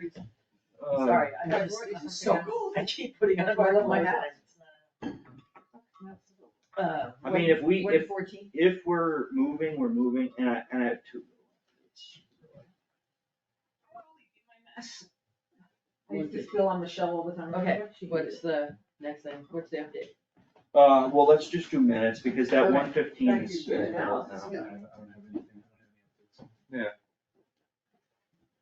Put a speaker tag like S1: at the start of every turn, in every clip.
S1: Uh,
S2: Sorry, I
S3: Yeah,
S2: just,
S3: Roy
S2: this
S3: doesn't
S2: is so
S3: forget.
S2: cool, I keep putting on
S3: That's why I
S2: one of
S3: love
S2: my
S3: my
S2: hats. Uh,
S1: I mean, if we,
S3: One
S1: if,
S3: fourteen,
S1: if we're moving, we're moving, and I, and I have two.
S3: I used to spill on Michelle all the time.
S2: Okay,
S3: She-
S2: what's the next thing, what's the update?
S1: Uh, well, let's just do minutes, because that
S2: Okay.
S1: one fifteen
S2: Thank
S1: is
S2: you.
S1: spent out
S2: Analysis,
S1: now.
S2: yeah.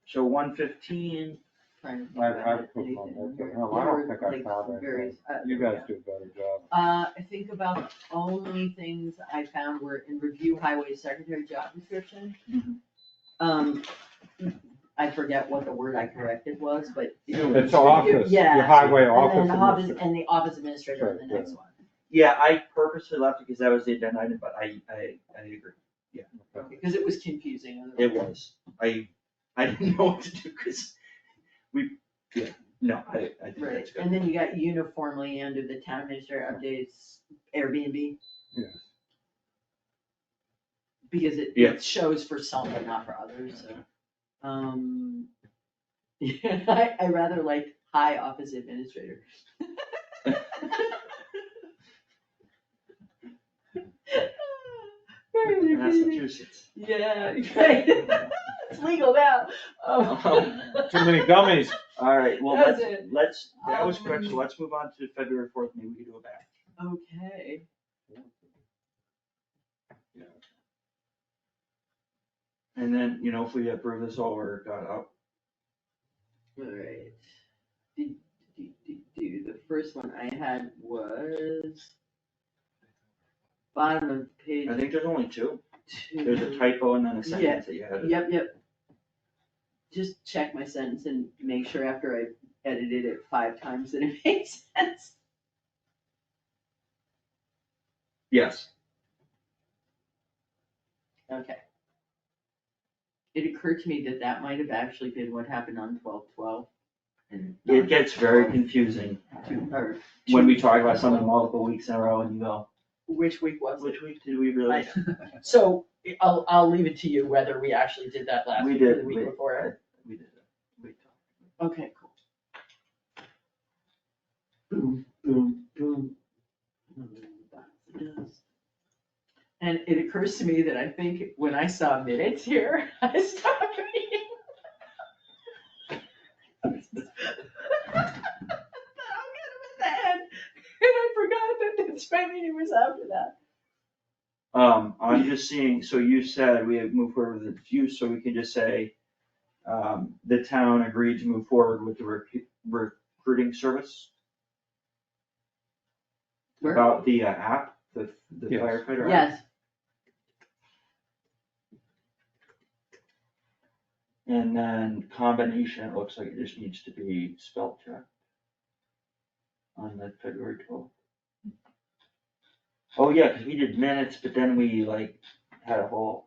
S1: So one fifteen,
S2: Trying to
S4: I-
S2: think
S4: I
S2: about
S4: put
S2: anything
S4: on
S2: in
S4: there,
S2: here.
S4: no, I don't
S2: There
S4: think I
S2: were, like,
S4: found anything.
S2: various- uh,
S4: You guys do a better job.
S2: Uh, I think about the only things I found were in review highway secretary job description.
S3: Mm-hmm.
S2: Um, I forget what the word I corrected was, but.
S4: It's our office,
S2: Yeah.
S4: your highway
S2: And
S4: office.
S2: then the office,
S4: administrator.
S2: and the office administrator in the next one.
S1: yeah, I purposely left it because that was the agenda item, but I, I, I agree,
S4: Okay.
S2: Because it was confusing.
S1: it was, I, I didn't know what to do, because we, yeah, no, I, I think
S2: Right,
S1: that's good.
S2: and then you got uniformly under the town administrator updates Airbnb,
S4: Yes.
S2: because it,
S1: Yeah.
S2: it shows for some but not for others, so. Um, yeah, I, I rather liked high office administrator. Very misleading.
S1: Massachusetts.
S2: Yeah, right. It's legal now. Um,
S4: Too many gummies.
S1: All right, well,
S2: That was
S1: let's,
S2: it.
S1: let's, that was quick, so
S2: Um,
S1: let's move on to February fourth, maybe we can do a back.
S2: Okay.
S1: And then, you know, if we approve this all, we're got up.
S2: Alright. Do, do, do, do. The first one I had was bottom of page
S1: I think there's only two.
S2: two.
S1: There's a typo and then a sentence that you added.
S2: Yep, yep. Just check my sentence and make sure after I edited it five times that it makes sense.
S1: Yes,
S2: Okay. It occurred to me that that might have actually been what happened on twelve twelve. And.
S1: it gets very confusing
S2: Two, or
S1: when
S2: two-
S1: we talk about something multiple weeks in a row and you go,
S2: Which week was it?
S1: which week did we really?
S2: So I'll, I'll leave it to you whether we actually did that last
S1: We
S2: week or
S1: did,
S2: the
S1: we-
S2: week before.
S1: We did it. We talked.
S2: Okay, cool. Boom, boom, boom. And it occurs to me that I think when I saw minutes here, I stopped reading. I thought, "Oh, God, I'm at the end," And I forgot that that's my meeting was after that.
S1: Um, I'm just seeing, so you said we have moved forward with the use, so we can just say, um, the town agreed to move forward with the recu- recruiting service about the uh, app, the the
S4: Yes.
S1: firefighter app.
S2: Yes,
S1: And then combination, it looks like it just needs to be spell checked. On the February twelfth. Oh, yeah, cause we did minutes, but then we like had a whole,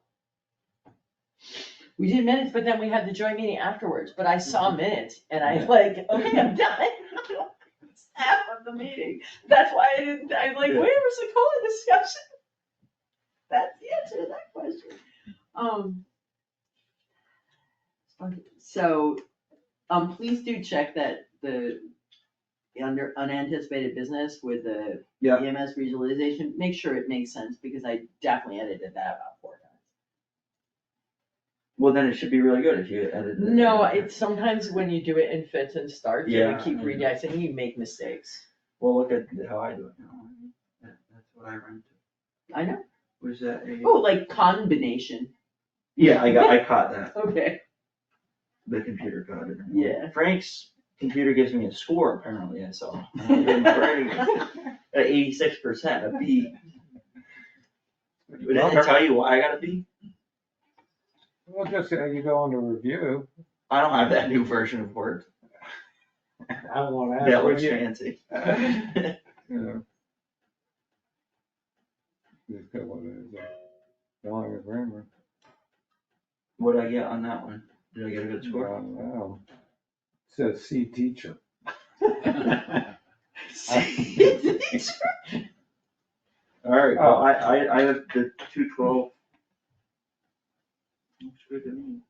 S2: we did minutes, but then we had the joint meeting afterwards, but I
S1: Mm-hmm.
S2: saw minutes and I like, okay, I'm done. It's Half of the meeting, that's why I didn't, I was like,
S1: Yeah.
S2: where was the COLA discussion? That's the answer to that question. Um. So, um, please do check that the, the under unanticipated business with the
S1: Yeah.
S2: EMS regionalization, make sure it makes sense, because I definitely edited that about four times.
S1: well, then it should be really good if you edited. it.
S2: No, it's sometimes when you do it in fits and starts, you
S1: Yeah.
S2: keep reading, and you make mistakes.
S1: Well, look at how I do it now. That- That's what I run to.
S2: I know.
S1: Was that a?
S2: Oh, like combination,
S1: Yeah, I got, I caught that.
S2: okay.
S1: The computer caught it.
S2: Yeah.
S1: Frank's computer gives me a score apparently, I saw. I'm doing pretty good. at eighty-six percent, a B. Would that tell you why I got a B?
S4: Well, just, uh, you go on to review.
S1: I don't have that new version of Word.
S4: I don't wanna ask
S1: That
S4: what
S1: looks
S4: you.
S1: fancy.
S4: Yeah. Just get what it is. Don't have a grammar.
S1: What'd I get on that one? Did I get a good
S4: I
S1: score?
S4: don't know. Says C teacher.
S1: Alright, well, I, I, I have the two twelve. Looks good to me.